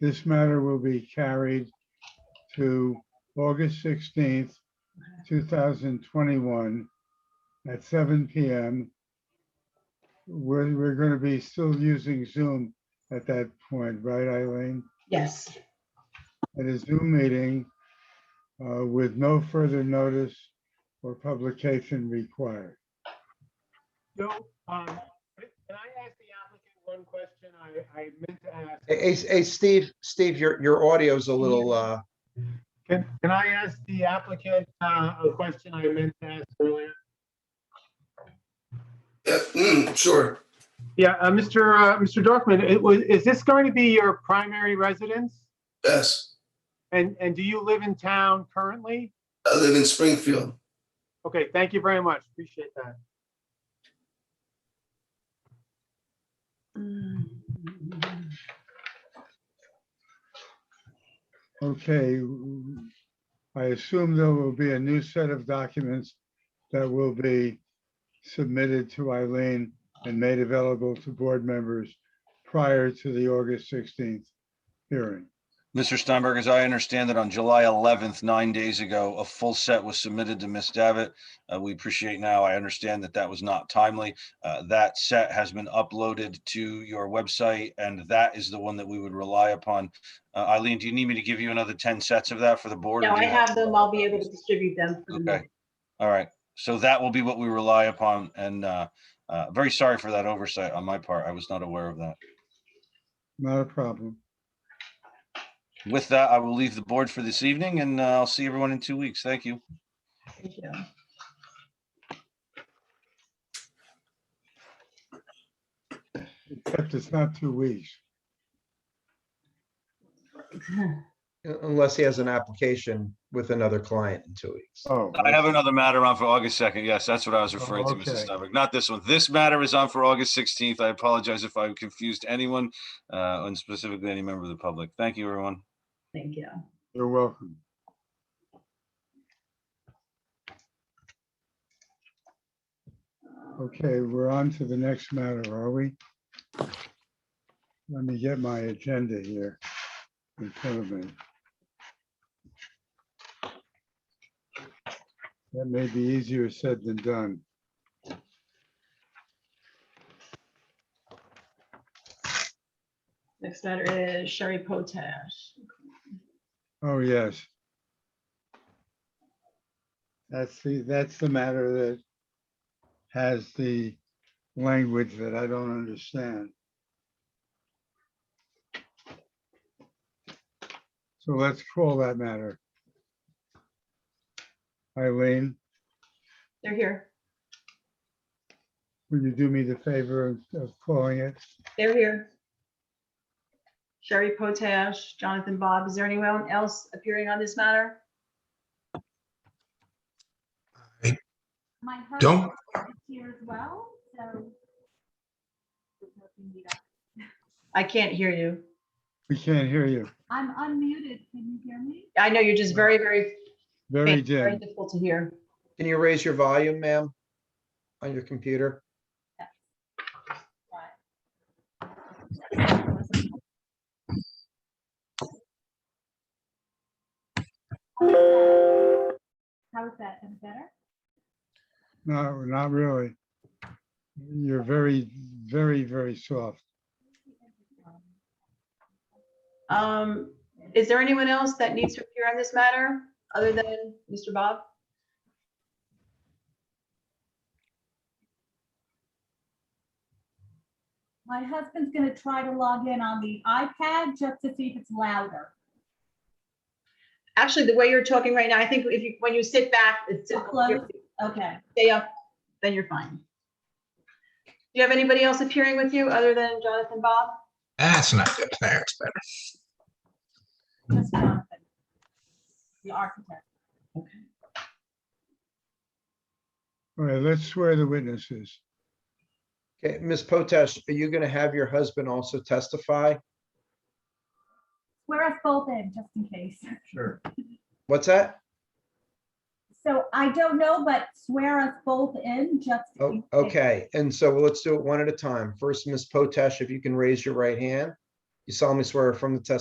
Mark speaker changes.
Speaker 1: This matter will be carried to August sixteenth, two thousand twenty-one at seven PM. We're, we're going to be still using Zoom at that point, right, Eileen?
Speaker 2: Yes,
Speaker 1: At a Zoom meeting uh, with no further notice or publication required.
Speaker 3: So, um, can I ask the applicant one question I, I meant to ask?
Speaker 4: Hey, Hey, hey, Steve, Steve, your, your audio's a little, uh,
Speaker 3: Can, can I ask the applicant, uh, a question I meant to ask earlier?
Speaker 5: Yeah, mm, Sure.
Speaker 3: Yeah, uh, Mr. Uh, Mr. Dorfman, it was, is this going to be your primary residence?
Speaker 5: Yes.
Speaker 3: And, and do you live in town currently?
Speaker 5: I live in Springfield.
Speaker 3: Okay, thank you very much. Appreciate that.
Speaker 1: Okay. w- I assume there will be a new set of documents that will be submitted to Eileen and made available to board members prior to the August 16th hearing.
Speaker 6: Mr. Steinberg, as I understand it, on July 11th, nine days ago, a full set was submitted to Ms. Davitt. Uh, We appreciate now, I understand that that was not timely. Uh, That set has been uploaded to your website, and that is the one that we would rely upon. Uh, Eileen, do you need me to give you another 10 sets of that for the board? or
Speaker 2: no,
Speaker 6: do
Speaker 2: I
Speaker 6: you
Speaker 2: have them. I'll be able to distribute them. for the
Speaker 6: Okay. All right, so that will be what we rely upon, and uh, uh, very sorry for that oversight on my part. I was not aware of that.
Speaker 1: Not a problem.
Speaker 6: With that, I will leave the board for this evening, and uh, I'll see everyone in two weeks. Thank you.
Speaker 2: meeting. Thank you.
Speaker 1: Except it's not two weeks.
Speaker 4: unless he has an application with another client in two weeks.
Speaker 1: Oh.
Speaker 6: I have another matter on for August 2nd. Yes, that's what I was referring to,
Speaker 1: okay.
Speaker 6: Mrs. Steinberg. Not this one. This matter is on for August 16th. I apologize if I confused anyone, uh, and specifically any member of the public. Thank you, everyone.
Speaker 2: Thank you.
Speaker 1: You're welcome. Okay, we're on to the next matter, are we? Let me get my agenda here in front of me. That may be easier said than done.
Speaker 2: Next matter is Sherry Potash.
Speaker 1: Oh, yes. That's the, that's the matter that has the language that I don't understand. So let's call that matter. Eileen,
Speaker 2: They're here.
Speaker 1: will you do me the favor of- of calling it?
Speaker 2: They're here. Sherry Potash, Jonathan Bob, is there anyone else appearing on this matter?
Speaker 7: My
Speaker 5: Don't-
Speaker 7: husband is here as well, so.
Speaker 2: I can't hear you.
Speaker 1: We can't hear you.
Speaker 7: I'm unmuted. Can you hear me?
Speaker 2: I know you're just very, very,
Speaker 1: Very
Speaker 2: faint, very
Speaker 1: dim.
Speaker 2: difficult to hear.
Speaker 4: Can you raise your volume, ma'am? On your computer?
Speaker 7: How is that? Any better?
Speaker 1: No, not really. You're very, very, very soft.
Speaker 2: Um, is there anyone else that needs to appear on this matter other than Mr. Bob?
Speaker 7: My husband's gonna try to log in on the iPad just to see if it's louder.
Speaker 2: Actually, the way you're talking right now, I think if you, when you sit back, it's difficult. to hear
Speaker 7: Close. Okay.
Speaker 2: stay up, then you're fine. Do you have anybody else appearing with you other than Jonathan Bob?
Speaker 8: That's not good. That's better.
Speaker 7: just Jonathan, The architect.
Speaker 1: All right, let's swear the witnesses.
Speaker 4: Okay, Ms. Potash, are you going to have your husband also testify?
Speaker 7: Wear us both in just in case.
Speaker 4: Sure. What's that?
Speaker 7: So I don't know, but swear us both in just.
Speaker 4: Oh,
Speaker 7: in case.
Speaker 4: okay. And so let's do it one at a time. First, Ms. Potash, if you can raise your right hand. You solemnly swear from the testimony